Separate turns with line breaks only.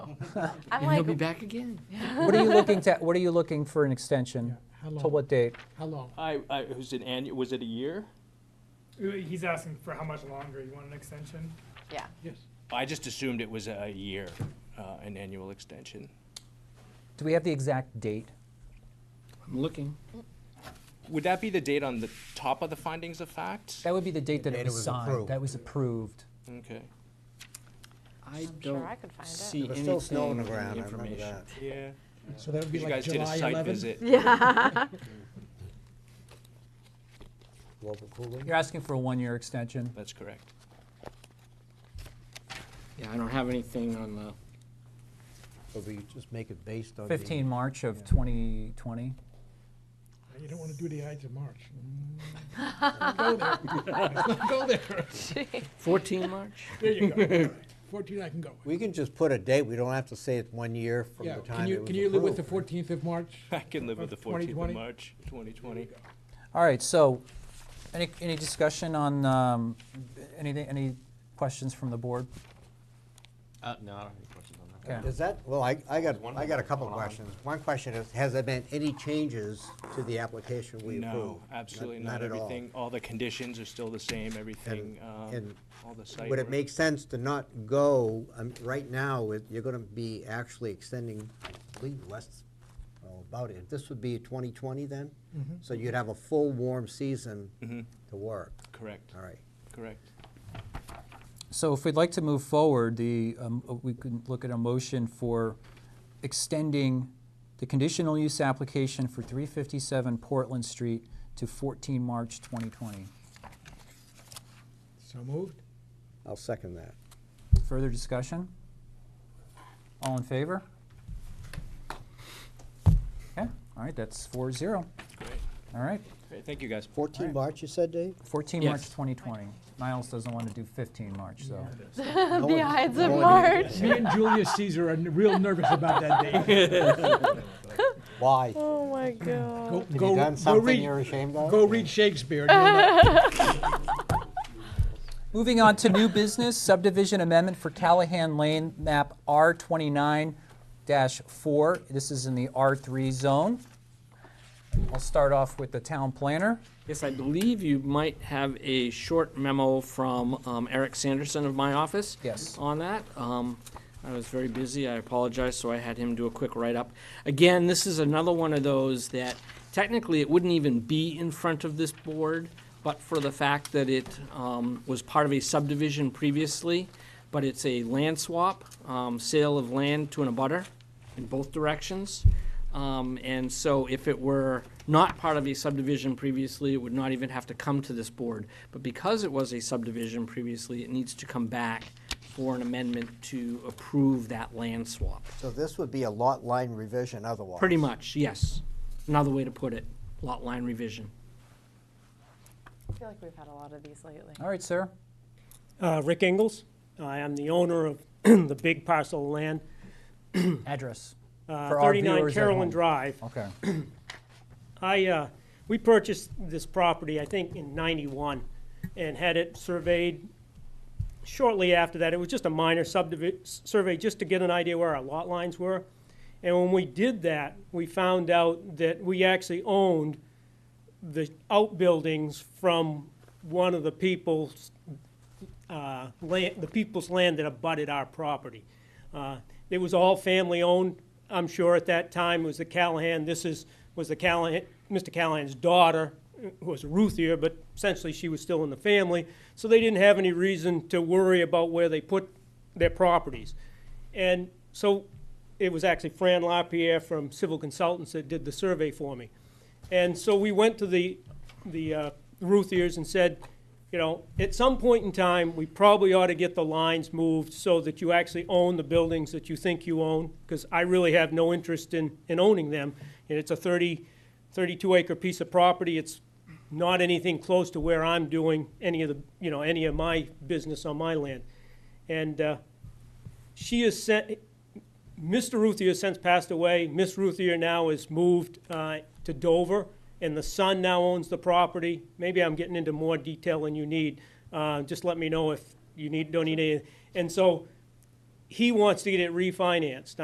I'm
And he'll
like,
be back again.
What are you looking to, what are you looking for an extension?
How
Till
long?
what date?
How long?
I, I, was it annual, was it a year?
He's asking for how much longer, you want an extension?
yeah,
Yes.
I just assumed it was a year, uh, an annual extension.
Do we have the exact date?
I'm looking.
Would that be the date on the top of the findings of fact?
That would be the date that
date
it
it
was
was
signed,
approved.
that was approved.
Okay.
I
I'm sure
don't
I could find it.
see
There was still snow on the
anything in
ground, I remember
information.
that.
Yeah.
So that would be
You
like
guys did a
July
site
11?
visit.
yeah.
Global cooling.
You're asking for a one-year extension.
That's correct.
Yeah, I don't have anything on the,
So we just make it based on. the-
15 March of 2020.
You don't want to do the Ides of March. Mm, Go there. Let's not Go there.
14 March?
There you go. 14 I can go with.
We can just put a date, we don't have to say it's one year from
Yeah,
the
can
time it
you,
was
can you live with the
approved.
14th of March?
I can live with the 14th
2020?
of March, 2020.
All right, so, any, any discussion on, um, anything, any questions from the board?
Uh, no, I don't have any questions on that.
Okay.
Is that, well, I, I got,
One
I got a couple
going on.
questions. One question is, has there been any changes to the application we approved?
No, absolutely not.
at all.
Everything, all the conditions are still the same, everything, um,
and
all the site.
Would it
work.
make sense to not go, um, right now, it- you're gonna be actually extending, I believe, less, well, about it. This would be twenty twenty then?
Mm-hmm.
So you'd have a full warm season
Mm-hmm.
to work,
Correct,
all right.
correct.
So if we'd like to move forward, the, um, uh, we can look at a motion for extending the conditional use application for 357 Portland Street to 14 March 2020.
So moved?
I'll second that.
Further discussion? All in favor? Okay, all right, that's 4-0.
Great.
All right,
Great, Thank you, guys.
Fourteen March, you said, Dave?
14 March
Yes.
2020. Niles doesn't want to do 15 March, so.
the Ides of
no one-
March.
Me and Julius Caesar are n- real nervous about that day.
Why?
Oh my god.
Go,
Have
go-
you
go
done something
read-
you're ashamed of?
Go read Shakespeare. and you'll know.
Moving on to new business, subdivision amendment for Callahan Lane, map R twenty-nine four. This is in the R three zone. I'll start off with the town planner.
Yes, I believe you might have a short memo from um, Eric Sanderson of my office.
Yes.
On that. Um, I was very busy, I apologize, so I had him do a quick write-up. Again, this is another one of those that technically it wouldn't even be in front of this board, but for the fact that it um, was part of a subdivision previously, but it's a land swap, um, sale of land to an abutter in both directions. Um, And so if it were not part of a subdivision previously, it would not even have to come to this board. But because it was a subdivision previously, it needs to come back for an amendment to approve that land swap.
So this would be a lot line revision otherwise?
Pretty much, yes. Another way to put it, lot line revision.
I feel like we've had a lot of these lately.
All right, sir.
Uh, Rick Ingles. I am the owner of the big parcel of land,
Address.
uh,
For our
39
viewers at home.
Carolyn Drive.
Okay.
I, uh, we purchased this property, I think, in 91, and had it surveyed shortly after that. It was just a minor subdivision, survey, just to get an idea where our lot lines were. And when we did that, we found out that we actually owned the outbuildings from one of the people's, uh, land, the people's land that abutted our property. Uh, It was all family-owned, I'm sure at that time, it was the Callahan, this is, was the Callahan, Mr. Callahan's daughter, who was Ruthier, but essentially she was still in the family, so they didn't have any reason to worry about where they put their properties. And so it was actually Fran LaPierre from Civil Consultants that did the survey for me. And so we went to the, the uh, Ruthiers and said, you know, at some point in time, we probably ought to get the lines moved so that you actually own the buildings that you think you own, because I really have no interest in, in owning them. And it's a 30, 32 acre piece of property. It's not anything close to where I'm doing any of the, you know, any of my business on my land. And uh, she has sent, Mr. Ruthier has since passed away. Miss Ruthier now has moved uh, to Dover, and the son now owns the property. Maybe I'm getting into more detail than you need. Uh, Just let me know if you need, don't need any. And so he wants to get it refinanced.